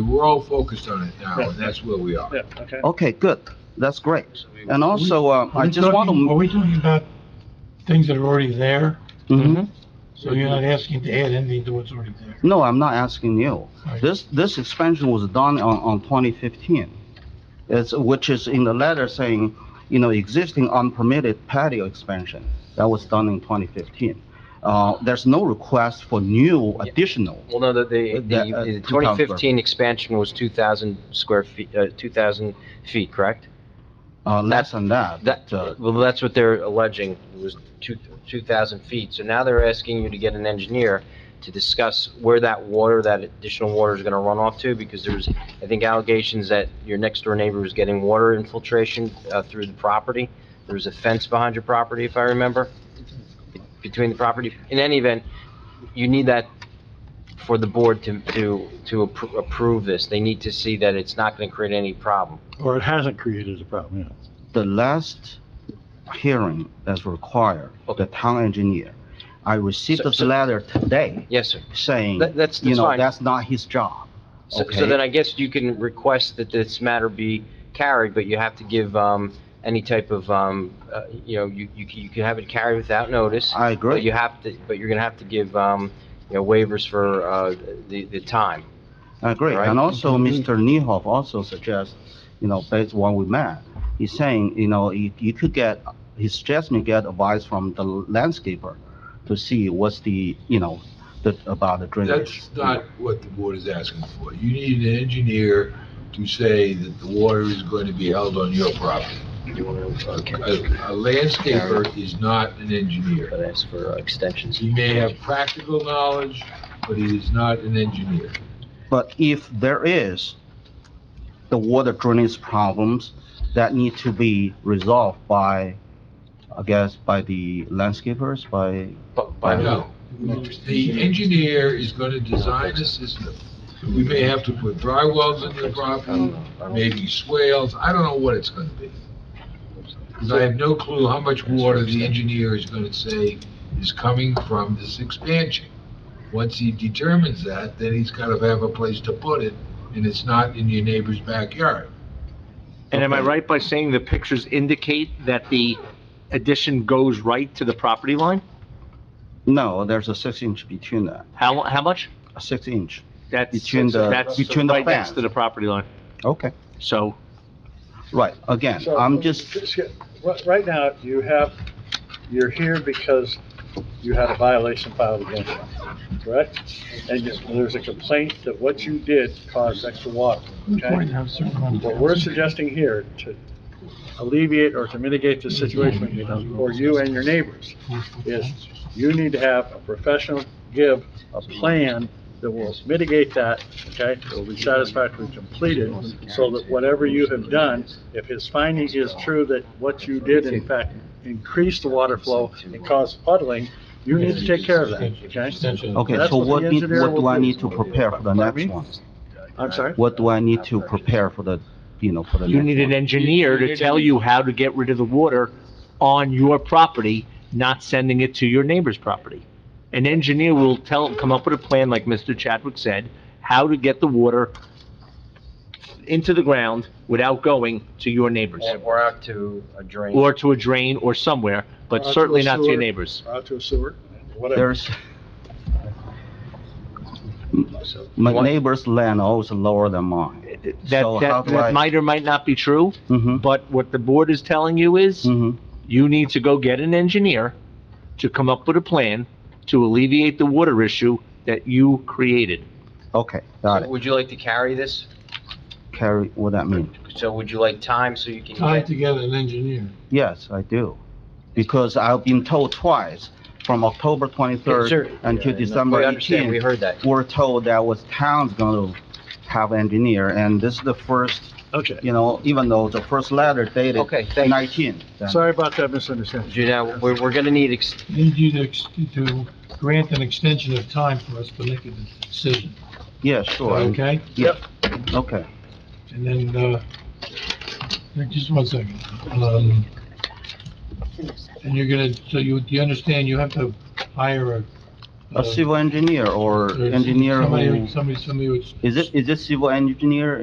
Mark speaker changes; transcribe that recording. Speaker 1: We're all focused on it now, and
Speaker 2: Yeah.
Speaker 1: that's where we are.
Speaker 2: Yeah, okay.
Speaker 3: Okay, good. That's great. And also, uh,
Speaker 4: Are
Speaker 3: I
Speaker 4: we
Speaker 3: just want
Speaker 4: talking- Are
Speaker 3: to,
Speaker 4: we talking about things that are already there?
Speaker 3: Mhm.
Speaker 4: So you're not asking to add anything to what's already there?
Speaker 3: no, I'm not asking you.
Speaker 4: Right.
Speaker 3: This, this expansion was done on, on 2015. It's, which is in the letter saying, you know, existing unpermitted patio expansion. That was done in 2015. Uh, there's no request for new additional.
Speaker 5: Well, no, the, the,
Speaker 3: That, uh,
Speaker 5: the
Speaker 3: 2,000
Speaker 5: twenty fifteen expansion was two thousand square feet, uh, two thousand feet, correct?
Speaker 3: Uh, less than that.
Speaker 5: That,
Speaker 3: uh,
Speaker 5: well, that's what they're alleging, was two, two thousand feet, so now they're asking you to get an engineer to discuss where that water, that additional water is gonna run off to, because there's, I think allegations that your next door neighbor was getting water infiltration, uh, through the property. There was a fence behind your property, if I remember, be- between the property, in any event, you need that for the board to, to, to appro- approve this, they need to see that it's not gonna create any problem.
Speaker 6: Or it hasn't created a problem, yeah.
Speaker 3: the last hearing as required, of the town engineer, I received
Speaker 5: So-
Speaker 3: this
Speaker 5: so-
Speaker 3: letter today
Speaker 5: Yes, sir.
Speaker 3: saying,
Speaker 5: That- that's-
Speaker 3: you
Speaker 5: that's
Speaker 3: know,
Speaker 5: fine.
Speaker 3: that's not his job.
Speaker 5: So, so
Speaker 3: Okay.
Speaker 5: then I guess you can request that this matter be carried, but you have to give, um, any type of, um, uh, you know, you, you, can- you can have it carried without notice.
Speaker 3: I
Speaker 5: But
Speaker 3: agree.
Speaker 5: you have to, but you're gonna have to give, um, you know, waivers for, uh, the, the time.
Speaker 3: I agree.
Speaker 5: Right. Mm-hmm.
Speaker 3: And also, Mr. Niehoff also suggests, you know, based on what we met, he's saying, you know, you, you could get, he suggests me get advice from the landscaper to see what's the, you know, the, about the drainage.
Speaker 1: That's not what the board is asking for. You need an engineer to say that the water is going to be held on your property. A a landscaper is not an engineer.
Speaker 5: But as for extensions.
Speaker 1: He may have practical knowledge, but he is not an engineer.
Speaker 3: But if there is the water drainage problems that need to be resolved by, I guess, by the landscapers, by,
Speaker 5: But, but,
Speaker 1: No. The engineer is going to design a system. We may have to put dry wells in the property, maybe swales, I don't know what it's going to be. Because I have no clue how much water the engineer is going to say is coming from this expansion. Once he determines that, then he's got to have a place to put it, and it's not in your neighbor's backyard.
Speaker 7: And am I right by saying the pictures indicate that the addition goes right to the property line?
Speaker 3: no, there's a six inch between that,
Speaker 7: How, how much?
Speaker 3: a six inch.
Speaker 7: That's,
Speaker 3: Between the-
Speaker 7: that's
Speaker 3: between the
Speaker 7: right next
Speaker 3: fence.
Speaker 7: to the property line.
Speaker 3: Okay.
Speaker 7: So
Speaker 3: Right, again,
Speaker 2: So, um,
Speaker 3: I'm just,
Speaker 2: Right, right now, you have, you're here because you had a violation filed against you, correct? And you- there's a complaint that what you did caused extra water, okay?
Speaker 4: Required to have a certain amount of-
Speaker 2: What we're suggesting here to alleviate or to mitigate the situation for you and your neighbors is you need to have a professional give a plan that will mitigate that, okay? It will be satisfactorily completed, so that whatever you have done, if his finding is true that what you did in fact increased the water flow and caused puddling, you need to take care of that, okay?
Speaker 4: Extension.
Speaker 3: okay,
Speaker 2: That's
Speaker 3: so
Speaker 2: what the
Speaker 3: what, need-
Speaker 2: engineer
Speaker 3: what do
Speaker 2: will
Speaker 3: I
Speaker 2: do.
Speaker 3: need to prepare for the next one?
Speaker 2: I'm sorry?
Speaker 3: What do I need to prepare for the, you know, for the
Speaker 7: you need
Speaker 3: next
Speaker 7: an
Speaker 3: one?
Speaker 7: engineer to tell you how to get rid of the water on your property, not sending it to your neighbor's property. An engineer will tell, come up with a plan, like Mr. Chadwick said, how to get the water into the ground without going to your neighbors,
Speaker 5: Or out to a drain.
Speaker 7: or to a drain or somewhere,
Speaker 2: Or
Speaker 7: but
Speaker 2: Uh, to a
Speaker 7: certainly not to
Speaker 2: sewer.
Speaker 7: your neighbors.
Speaker 2: Out to a sewer, whatever.
Speaker 3: There's, my neighbor's land always lower than mine. So
Speaker 7: That,
Speaker 3: how
Speaker 7: that,
Speaker 3: do I-
Speaker 7: that might or might not be true,
Speaker 3: hmm
Speaker 7: but what the board is telling you is,
Speaker 3: hmm
Speaker 7: you need to go get an engineer to come up with a plan to alleviate the water issue that you created.
Speaker 3: okay, got it.
Speaker 5: Would you like to carry this?
Speaker 3: Carry, what that mean?
Speaker 5: So would you like time so you can
Speaker 4: Tied
Speaker 5: get?
Speaker 4: together an engineer.
Speaker 3: Yes, I do. Because I've been told twice, from October
Speaker 5: Sure.
Speaker 3: 23rd until December
Speaker 5: We understand, we
Speaker 3: 18th,
Speaker 5: heard that.
Speaker 3: we're told that was town's gonna have engineer, and this is the first,
Speaker 2: Okay,
Speaker 3: you know, even though the first letter dated
Speaker 5: Okay, thank you.
Speaker 3: 19.
Speaker 2: sorry about that misunderstanding.
Speaker 5: You know, we're, we're gonna need ex-
Speaker 4: Need you to, ex- to grant an extension of time for us to make a decision,
Speaker 3: Yeah, sure,
Speaker 4: okay?
Speaker 3: okay.
Speaker 4: And then, uh, just one second. Um, and you're gonna, so you, do you understand you have to hire a
Speaker 2: a civil engineer or
Speaker 3: There's
Speaker 2: engineer
Speaker 3: Somebody,
Speaker 2: who,
Speaker 3: somebody, somebody who's
Speaker 2: is it, is it civil engineer